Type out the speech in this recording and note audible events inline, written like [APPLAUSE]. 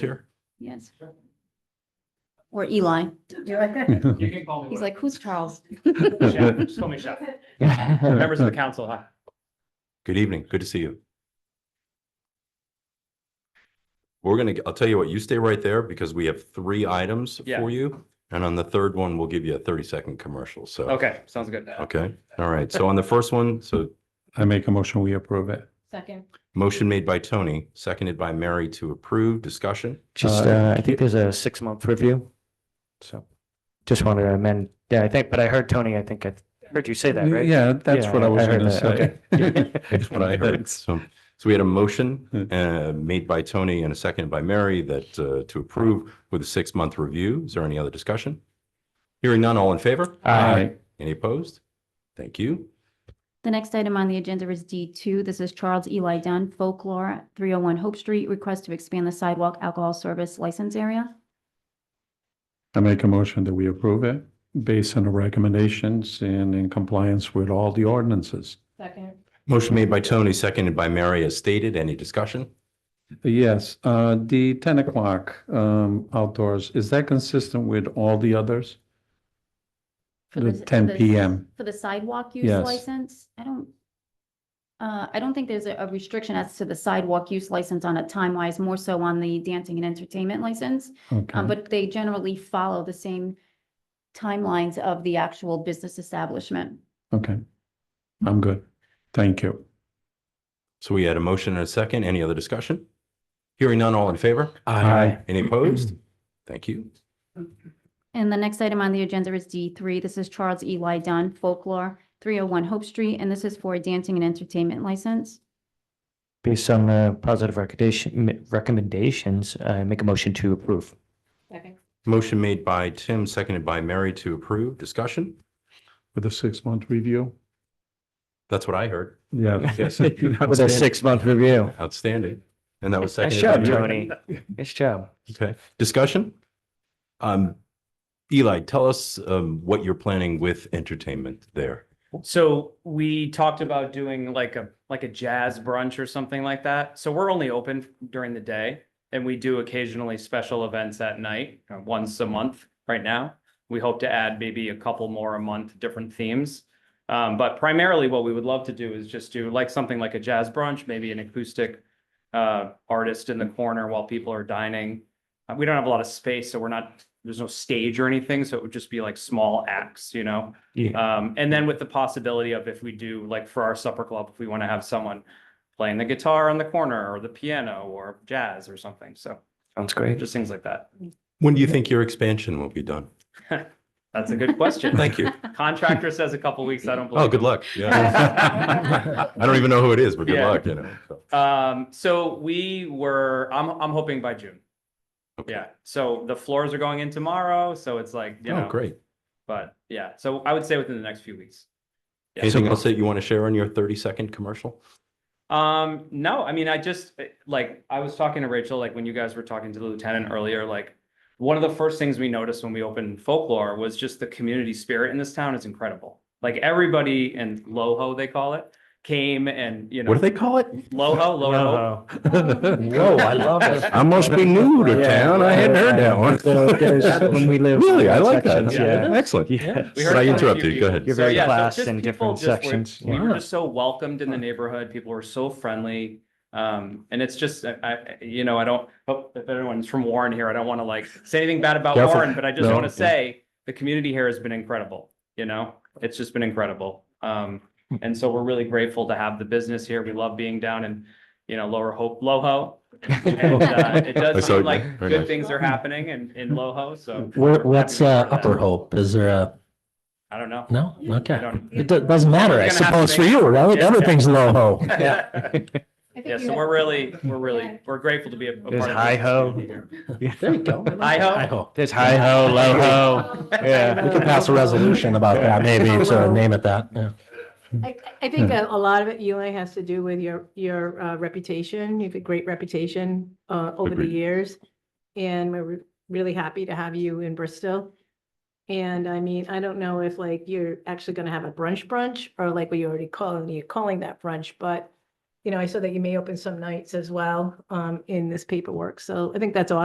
Here. Yes. Or Eli. You can call me. He's like, who's Charles? Chef. [LAUGHS] Just call me Chef. [LAUGHS] [LAUGHS] Members of the council, hi. Good evening. Good to see you. We're gonna, I'll tell you what, you stay right there because we have three items Yeah. for you. And on the third one, we'll give you a thirty second commercial. So. Okay, sounds good. Okay. All right. So on the first one, so I make a motion, we approve it. Second. motion made by Tony, seconded by Mary to approve discussion. Just, uh, I think there's a six month review. So just wanted to amend. Yeah, I think, but I heard Tony, I think I heard you say that, right? Yeah, that's Yeah, what I was heard gonna that. say. [LAUGHS] Okay. That's what I heard. Thanks. So, so we had a [LAUGHS] motion Hmm. uh, made by Tony and a second by Mary that uh, to approve with a six month review. Is there any other discussion? Hearing none, all in favor? Aye. Any opposed? Thank you. The next item on the agenda is D two. This is Charles Eli Dunn, Folklore, three oh one Hope Street, request to expand the sidewalk alcohol service license area. I make a motion that we approve it based on the recommendations and in compliance with all the ordinances. Second. Motion made by Tony, seconded by Mary as stated. Any discussion? Yes, uh, the ten o'clock, um, outdoors, is that consistent with all the others? The 10 PM. For the sidewalk use Yes. license, I don't. Uh, I don't think there's a a restriction as to the sidewalk use license on a time wise, more so on the dancing and entertainment license. Um, Okay, but they generally follow the same timelines of the actual business establishment. okay. I'm good. Thank you. So we had a motion and a second. Any other discussion? Hearing none, all in favor? Aye. Any opposed? Thank you. And the next item on the agenda is D three. This is Charles Eli Dunn Folklore, three oh one Hope Street, and this is for a dancing and entertainment license. Based on the positive recommendation, recommendations, I make a motion to approve. Motion made by Tim, seconded by Mary to approve. Discussion? With the six-month review? That's what I [LAUGHS] heard. Yeah. Yes. [LAUGHS] With a six month review. Outstanding. And that was Nice seconded. by job, Mary. Tony. Nice job. Okay, discussion? Um, Eli, tell us um what you're planning with entertainment there. So we talked about doing like a, like a jazz brunch or something like that. So we're only open during the day. And we do occasionally special events at night, uh, once a month right now. We hope to add maybe a couple more a month, different themes. Um, but primarily what we would love to do is just do like something like a jazz brunch, maybe an acoustic uh, artist in the corner while people are dining. Uh, We don't have a lot of space, so we're not, there's no stage or anything, so it would just be like small acts, you know? Yeah. Uh, Um, and then with the possibility of if we do, like for our supper club, if we want to have someone playing the guitar on the corner or the piano or jazz or something. So Sounds great. just things like that. When do you think your expansion will be done? That's a good question. [LAUGHS] Thank you. Contractor says a couple weeks, I don't believe. Oh, good him. luck. Yeah. [LAUGHS] I don't even know who it is, but good Yeah. luck, you know. so. Um, so we were, I'm, I'm hoping by June. Okay. Yeah. So the floors are going in tomorrow, so it's like, you Oh, know, great. but yeah, so I would say within the next few weeks. Yeah. Anything else that you want to share on your thirty second commercial? Um, no, I mean, I just eh, like I was talking to Rachel, like when you guys were talking to the lieutenant earlier, like one of the first things we noticed when we opened folklore was just the community spirit in this town is incredible. Like everybody and Loho, they call it, came and you know What do they [LAUGHS] call it? Loho, Loho. Uh-huh. Whoa, I love [LAUGHS] it. I must be new to Yeah. town. I hadn't heard that one. So there's- [LAUGHS] [LAUGHS] When we live. Really, I like that. Yeah. Yeah, Excellent. Yeah. We But heard I from a few interrupted you. Go people. ahead. You're So, very yeah, so classed just in people different just were- sections. We were Yeah. just so welcomed in the neighborhood. People were so friendly. Um, and it's just, I, I, you know, I don't, hope if anyone's from Warren here, I don't want to like say anything bad about Careful. Warren, but I just No, want to yeah. say the community here has been incredible, you know? It's just been incredible. Um, and so we're really grateful to have the business here. We love being down in, you know, Lower Hope, Loho. And, uh, it [LAUGHS] I does saw seem it. like Very nice. good things are happening in, in Loho, so Where, what's uh, Happy to hear Upper that. Hope? Is there a, I don't know. no? I Okay. [LAUGHS] don't- [LAUGHS] It do- doesn't matter, We're I gonna have to suppose, for make- you, right? Yeah. Everything's low [LAUGHS] ho. Yeah, so we're really, we're really, we're grateful to be a a part of There's this. hi ho. There you [LAUGHS] go. Hi-ho. Hi-ho. There's hi ho, low ho. [LAUGHS] We could pass a resolution about that, maybe, so name it that, yeah. I, I think a a lot of it, Eli, has to do with your, your uh, reputation. You've a great reputation uh, over the Agreed. years. And we're re- really happy to have you in Bristol. And I mean, I don't know if like you're actually going to have a brunch brunch or like we already call, you're calling that brunch, but you know, I saw that you may open some nights as well um, in this paperwork. So I think that's awesome.